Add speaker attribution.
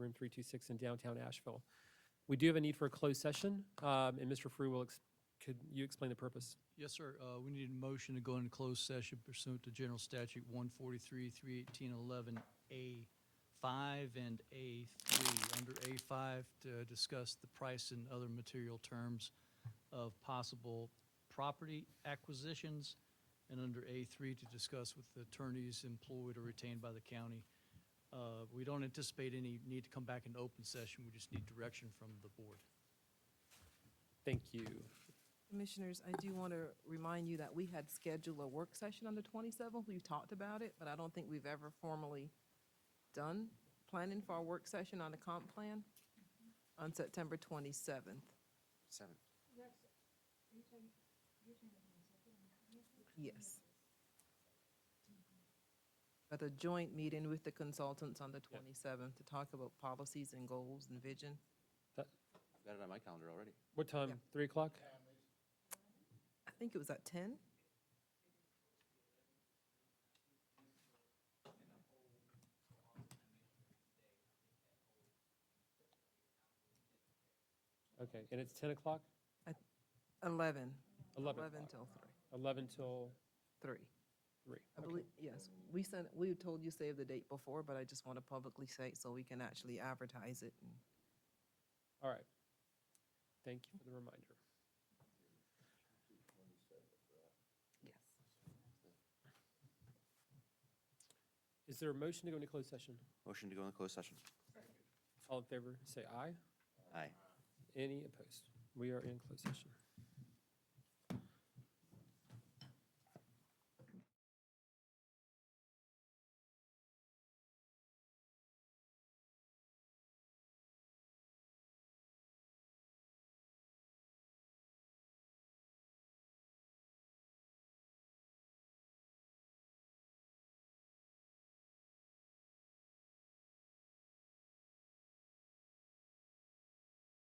Speaker 1: room 326 in downtown Asheville. We do have a need for a closed session, um, and Mr. Frew will, ex- could you explain the purpose?
Speaker 2: Yes, sir. Uh, We need a motion to go into closed session pursuant to General Statute 143, 318, 11A5 and A3. Under A5, to discuss the price and other material terms of possible property acquisitions, and under A3, to discuss with the attorneys employed or retained by the county. Uh, We don't anticipate any need to come back in open session. We just need direction from the board.
Speaker 1: Thank you.
Speaker 3: Commissioners, I do want to remind you that we had scheduled a work session on the 27th. We've talked about it, but I don't think we've ever formally done planning for a work session on the comp plan on September 27th.
Speaker 4: Seven.
Speaker 3: Yes. But a joint meeting with the consultants on the 27th to talk about policies and goals and vision.
Speaker 4: Got it on my calendar already.
Speaker 1: What time? 3 o'clock?
Speaker 3: I think it was at 10?
Speaker 1: Okay, and it's 10 o'clock?
Speaker 3: 11.
Speaker 1: 11
Speaker 3: 11
Speaker 1: o'clock?
Speaker 3: till 3.
Speaker 1: 11 till
Speaker 3: 3.
Speaker 1: 3.
Speaker 3: I
Speaker 1: Okay.
Speaker 3: believe, yes, we sent, we told you save the date before, but I just want to publicly say it so we can actually advertise it. and-
Speaker 1: All right. Thank you for the reminder. Is there a motion to go into closed session?
Speaker 4: Motion to go in closed session.
Speaker 1: All in favor, say aye.
Speaker 4: Aye.
Speaker 1: Any opposed? We are in closed session.